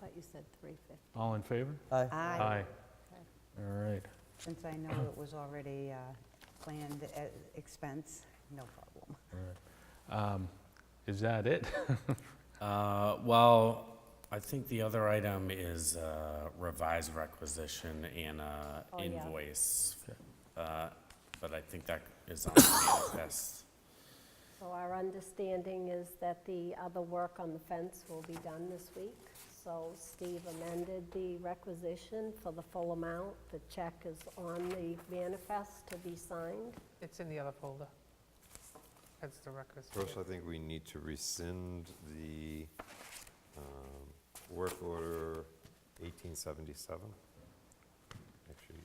thought you said 350. All in favor? Aye. Aye. All right. Since I know it was already uh, planned at expense, no problem. all right. Um, Is that it? Uh, Well, I think the other item is uh, revised requisition and uh, Oh, yeah. invoice. Okay. Uh, But I think that is on the manifest. So our understanding is that the other work on the fence will be done this week. So Steve amended the requisition for the full amount. The check is on the manifest to be signed. It's in the other folder. That's the records. First, I think we need to rescind the um, work order 1877. Actually,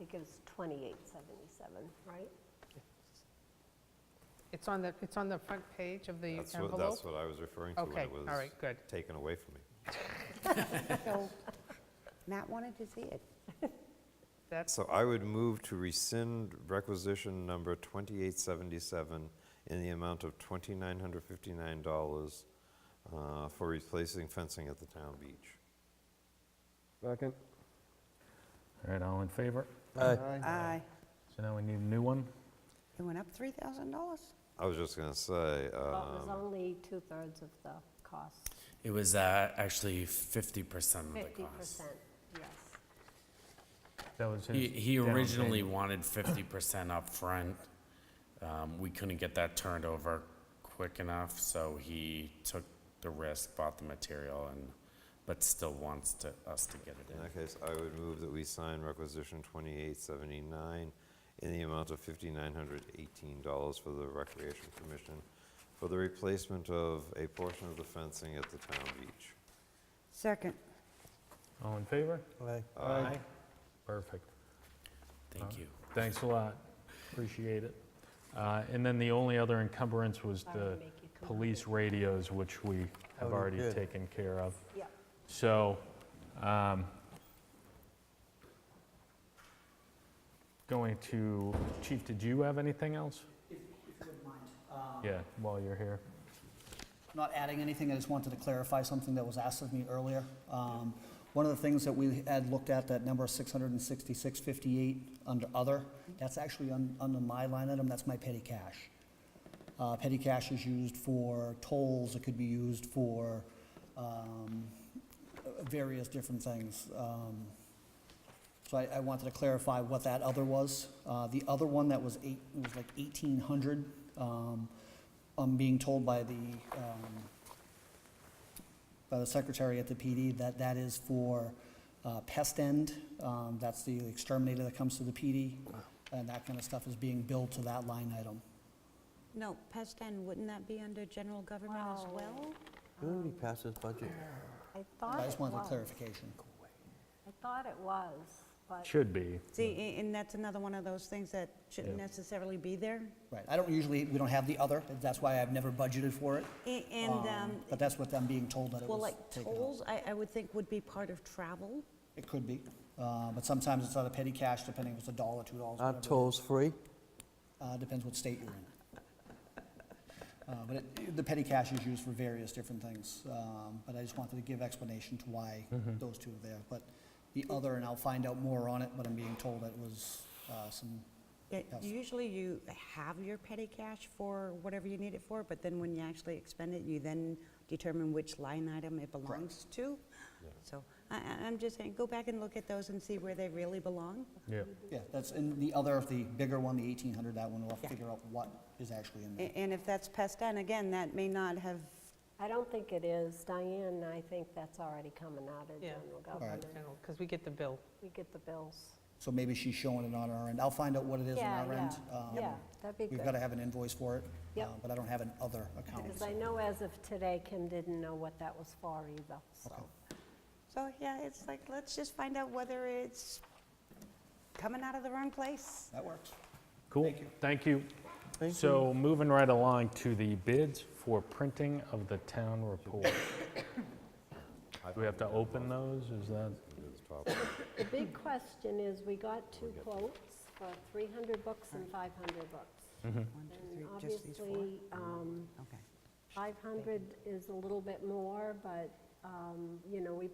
It gives 2877, right? It's on the, it's on the front page of the that's what, envelope? that's what I was referring to when Okay, it all was right, good. taken away from me. So Matt wanted to see it. That's, So I would move to rescind requisition number 2877 in the amount of $2,959 uh, for replacing fencing at the town beach. Second. All right, all in favor? Aye. Aye. So now we need a new one? It went up $3,000? I was just going to say, Well, it was um, only two-thirds of the cost, It was uh, actually 50% of the 50%, cost. yes. That was his He he down originally payment. wanted 50% upfront. Um, We couldn't get that turned over quick enough, so he took the risk, bought the material, and, but still wants to, us to get it in in. that case, I would move that we sign requisition 2879 in the amount of $5,918 for the Recreation Commission for the replacement of a portion of the fencing at the town beach. Second. All in favor? Aye. Aye. Perfect. Thank you. Thanks a lot. Appreciate it. Uh, And then the only other encumbrance was I the would make you come up police with- radios, which we have Oh, already good. taken care of. Yep. So, um, going to, Chief, did you have anything else? Um, Yeah, while you're here. Uh, Not adding anything, I just wanted to clarify something that was asked of me earlier. Um, One of the things that we had looked at, that number 66658 under other, that's actually un- under my line item, that's my petty cash. Uh, Petty cash is used for tolls, it could be used for um, various different things. Um, So I I wanted to clarify what that other was. Uh, The other one that was eight, it was like 1,800, um, I'm being told by the, um, by the secretary at the PD that that is for uh, pest end. Um, That's the exterminator that comes to the PD, and that kind of stuff is being billed to that line item. No, pest end, wouldn't that be under general government as Wow. well? Didn't we pass this budget? I I thought just it wanted was. clarification. I thought it was, but Should be. See, a- and that's another one of those things that shouldn't Yeah. necessarily be there. Right, I don't usually, we don't have the other, that's why I've never budgeted for it. A- And, um, But that's what I'm being told that it well, was like taken out. tolls, I, I would think would be part of travel. It could be, uh, but sometimes it's out of petty cash, depending if it's a dollar, two dollars, Aren't whatever. tolls free? Uh, Depends what state you're in. Uh, But it- the petty cash is used for various different things, um, but I just wanted to give explanation to why those two are there. But the other, and I'll find out more on it, but I'm being told it was uh, some, Yeah, Yes. Usually you have your petty cash for whatever you need it for, but then when you actually expend it, you then determine which line item it belongs to. So I, I- I'm just saying, go back and look at those and see where they really belong. Yeah. yeah, that's, and the other, the bigger one, the 1,800, that one, we'll have to Yeah. figure out what is actually in there. A- And if that's pest end, again, that may not have, I don't think it is. Diane, I think that's already coming out of yeah, general government. because we get the bill. We get the bills. So maybe she's showing it on our end. I'll find out what it is on Yeah, our yeah, end. Um, Yeah, that'd be We've got to good. have an invoice for it, Yep. uh, but I don't have an other account. Because so- I know as of today, Kim didn't know what that was for either, so. so yeah, it's like, let's just find out whether it's coming out of the wrong place. That works. Cool, thank you. So moving right along to the bids for printing of the town report. Do we have to open those, is that? Into the top one. The big question is, we got two quotes for 300 books and 500 books. One, two, And three, just these four? obviously, um, Okay. 500 is a little bit more, but um, you know, we